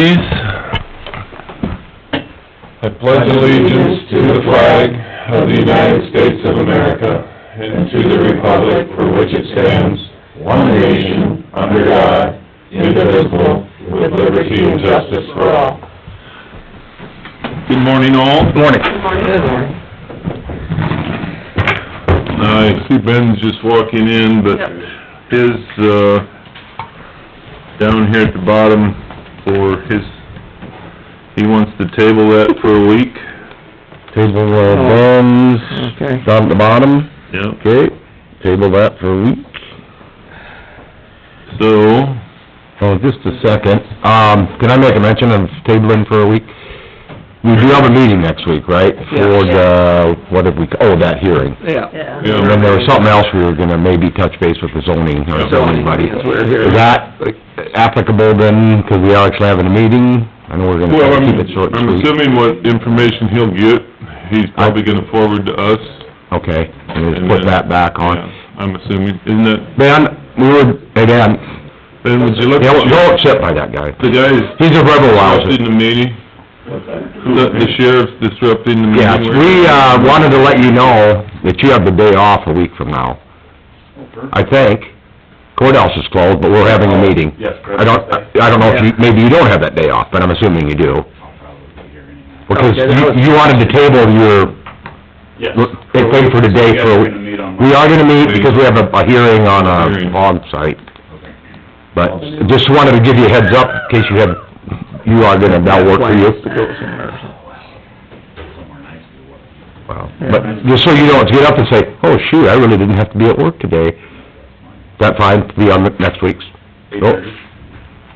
Please, I pledge allegiance to the flag of the United States of America and to the republic for which it stands, one nation, under God, indivisible, with liberty and justice for all. Good morning, all. Morning. I see Ben's just walking in, but Yep. his, uh, down here at the bottom for his, he wants to table that for a week. Table uh, Ben's, Okay. down at the bottom, Yep. okay, table that for a week. So, Oh, just a second, um, can I make a mention of tabling for a week? We do have a meeting next week, right? For the, what have we, oh, that hearing. Yeah. Yeah. yeah. And then there was something else we were gonna maybe touch base with the zoning, or zoning buddy. Zoning, yes, we're here. Is that applicable then, 'cause we are actually having a meeting? I know we're gonna Well, try to I'm, keep it short I'm and sweet. assuming what information he'll get, he's probably gonna forward to us. Okay, and just and put then- that back on. Yeah, I'm assuming, isn't that, Ben, we were, hey, Dan, Ben, would you look yeah, at your- don't sit by that guy. the guys He's a rebel disrupting louser. the meeting? The the sheriff's disrupting the meeting? Yes, we, uh, wanted to let you know that you have the day off a week from now. I think. Courthouse is closed, but we're having a meeting. Oh, Yes, I don't, I don't know if you, maybe you don't have that day off, but I'm assuming you do. I'll probably be here anyhow. Because Okay, that was- you, you wanted to table your, Yes. they paid for the day You guys for, are a gonna week. meet on we are gonna meet because we have a, a hearing on a Hearing. log site. Okay. But just wanted to give you a heads up in case you have, you are gonna, that'll work for you. Plans to go somewhere. Somewhere nice to do what? Wow. But just so you don't get up and say, oh shoot, I really didn't have to be at work today. That fine to be on the next week's, Eight Nope. thirty?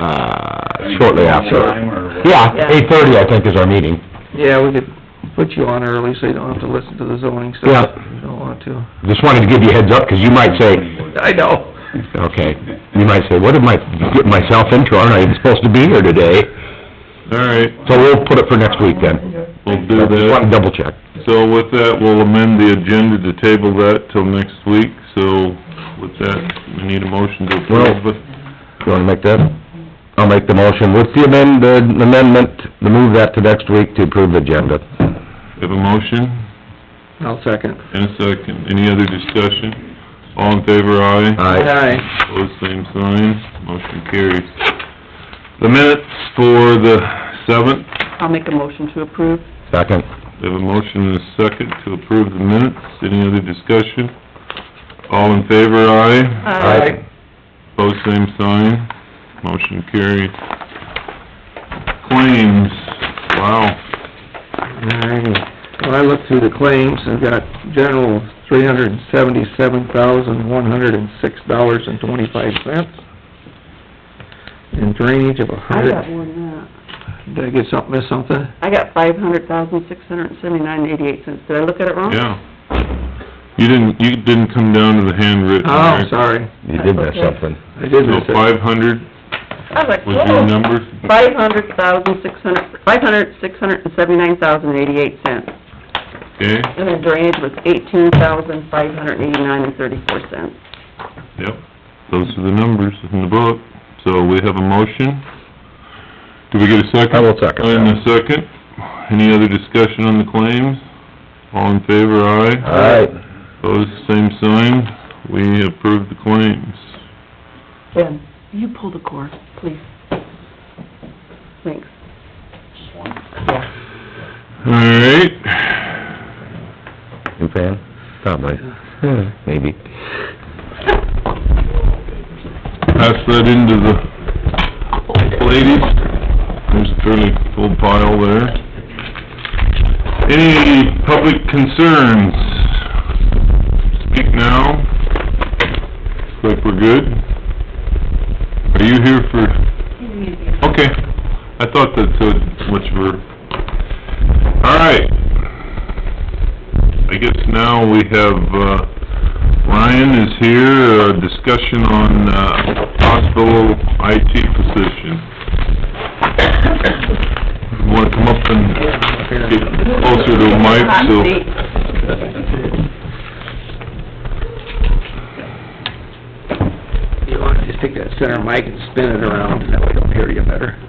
uh, shortly after. Time or what? Yeah, eight thirty I think is our meeting. Yeah, we could put you on early so you don't have to listen to the zoning stuff. Yeah. You don't want to. Just wanted to give you a heads up, 'cause you might say, I know. okay, you might say, what am I getting myself into? Aren't I even supposed to be here today? All right, So we'll put it for next week then. we'll do Just that. wanted to double check. So with that, we'll amend the agenda to table that till next week, so with that, we need a motion to approve. Well- You wanna make that? I'll make the motion with the amend, the amendment, to move that to next week to approve the agenda. We Have a motion I'll second. and a second. Any other discussion? All in favor, aye? Aye. Aye. Pose same sign, motion carries. The minutes for the seventh, I'll make a motion to approve. Second. we have a motion and a second to approve the minutes. Any other discussion? All in favor, aye? Aye. Pose same sign, motion carries. Claims, wow. Alrighty. When I look through the claims, I've got general three hundred and seventy-seven thousand, one hundred and six dollars and twenty-five cents. And drainage of a I got hundred. more than that. Did I get something, miss something? I got five hundred thousand, six hundred and seventy-nine, eighty-eight cents. Did I look at it wrong? Yeah. You didn't, you didn't come down to the handwritten, Oh, Rick. sorry. You did miss something. I did miss So it. five hundred I was like, was your whoa. number? Five hundred thousand, six hundred, five hundred, six hundred and seventy-nine thousand, eighty-eight cents. Okay, And then drainage was eighteen thousand, five hundred and eighty-nine and thirty-four cents. yep. Those are the numbers in the book. So we have a motion. Do we get a second? I will second that. And a second. Any other discussion on the claims? All in favor, aye. Alright. Opposed, same sign. We approve the claims. Ben, you pull the cord, please. Thanks. Just one. All right. You fan? Probably. Maybe. Pass that into the ladies. There's a fairly full pile there. Any public concerns? Speak now. Looks like we're good. Are you here for? Okay. I thought that's uh, what you were... All right. I guess now we have, uh, Ryan is here, uh, discussion on, uh, hospital IT position. Wanna come up and get closer to the mic, Hot so... seat. You want to just take that center mic and spin it around, and that way they'll hear you better.